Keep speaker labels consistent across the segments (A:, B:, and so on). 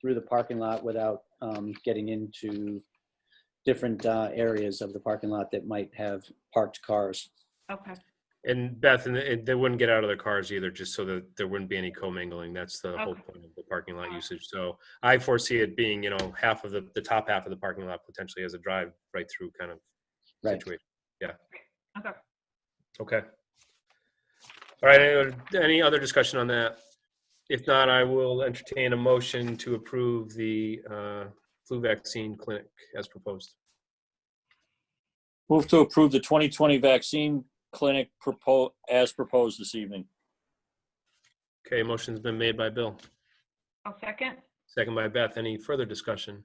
A: through the parking lot without um, getting into different uh, areas of the parking lot that might have parked cars.
B: Okay,
C: And Beth, and and they wouldn't get out of their cars either, just so that there wouldn't be any commingling. That's the whole
B: Okay.
C: point of the parking lot
B: Alright.
C: usage. So I foresee it being, you know, half of the, the top half of the parking lot potentially as a drive right through kind of
A: Right.
C: situation.
B: okay.
C: Okay. All right, any other- any other discussion on that? If not, I will entertain a motion to approve the uh, flu vaccine clinic as proposed.
D: Move to approve the 2020 vaccine clinic propo as proposed this evening.
C: Okay, motion's been made by Bill,
B: I'll second.
C: second by Beth. Any further discussion?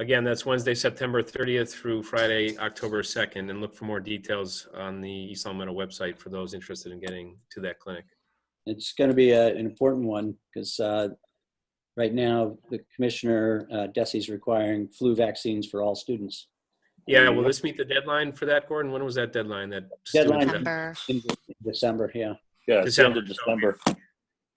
C: Again, that's Wednesday, September 30th through Friday, October 2nd, and look for more details on the East Long Meadow website for those interested in getting to that clinic.
A: It's going to be a- an important one because right now, the commissioner, uh, Desi's requiring flu vaccines for all students.
C: Yeah, will this meet the deadline for that, Gordon? When was that deadline? That
A: Deadline.
C: student-
E: September.
A: in December, yeah.
D: Yeah, it's the end of
C: December.
D: December.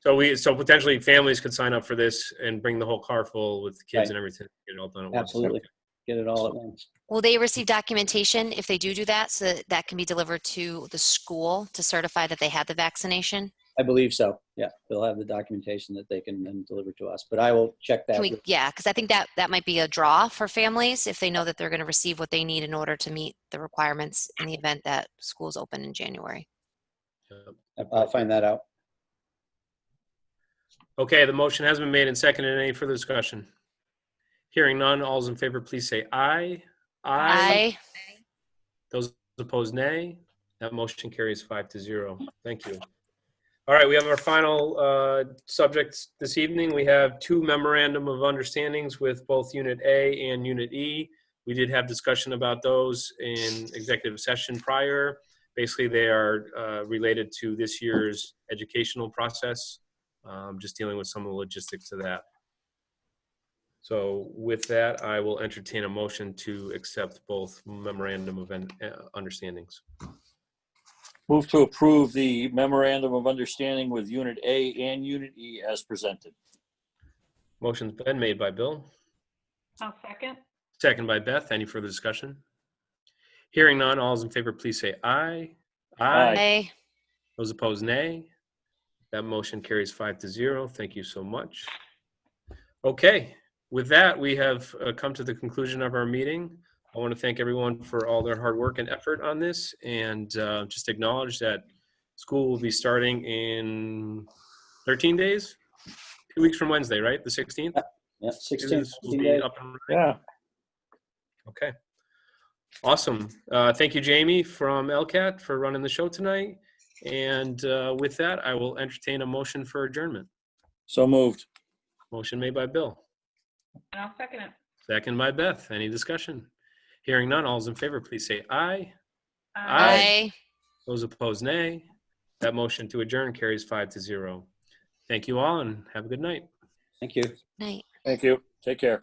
C: So we, so potentially families could sign up for this and bring the whole car full with kids
A: Right.
C: and everything. Get it all done. at once.
A: Absolutely. Get it all at once.
E: Will they receive documentation if they do do that, so that that can be delivered to the school to certify that they had the vaccination?
A: I believe so. Yeah, they'll have the documentation that they can then deliver to us, but I will check that.
E: Can we,
A: with-
E: yeah, because I think that, that might be a draw for families if they know that they're going to receive what they need in order to meet the requirements in the event that schools open in January.
C: Yep.
A: I'll I'll find that out.
C: Okay, the motion has been made and seconded. Any further discussion? Hearing none, all's in favor, please say aye.
E: I,
C: Those opposed, nay. That motion carries five to zero. Thank you. All right, we have our final uh, subjects this evening. We have two memorandum of understandings with both Unit A and Unit E. We did have discussion about those in executive session prior. Basically, they are uh, related to this year's educational process, um, just dealing with some of the logistics of that. So with that, I will entertain a motion to accept both memorandum of un- uh, understandings.
D: Move to approve the memorandum of understanding with Unit A and Unit E as presented.
C: Motion's been made by Bill,
B: I'll second.
C: second by Beth. Any further discussion? Hearing none, all is in favor, please say aye.
D: Aye.
E: I,
C: Those opposed, nay. That motion carries five to zero. Thank you so much. Okay, with that, we have uh, come to the conclusion of our meeting. I want to thank everyone for all their hard work and effort on this and uh, just acknowledge that school will be starting in 13 days, two weeks from Wednesday, right? The 16th?
A: Yeah,
C: Students
A: 16,
C: will
A: 16
C: be
A: days.
C: up and running.
D: Yeah.
C: Okay. Awesome. Uh, thank you, Jamie from LCAT for running the show tonight. And uh, with that, I will entertain a motion for adjournment.
D: So moved.
C: Motion made by Bill,
B: And I'll second it.
C: second by Beth. Any discussion? Hearing none, all's in favor, please say aye. Aye.
E: I,
C: Those opposed, nay. That motion to adjourn carries five to zero. Thank you all and have a good night.
A: Thank you.
E: night.
D: Thank you. Take care.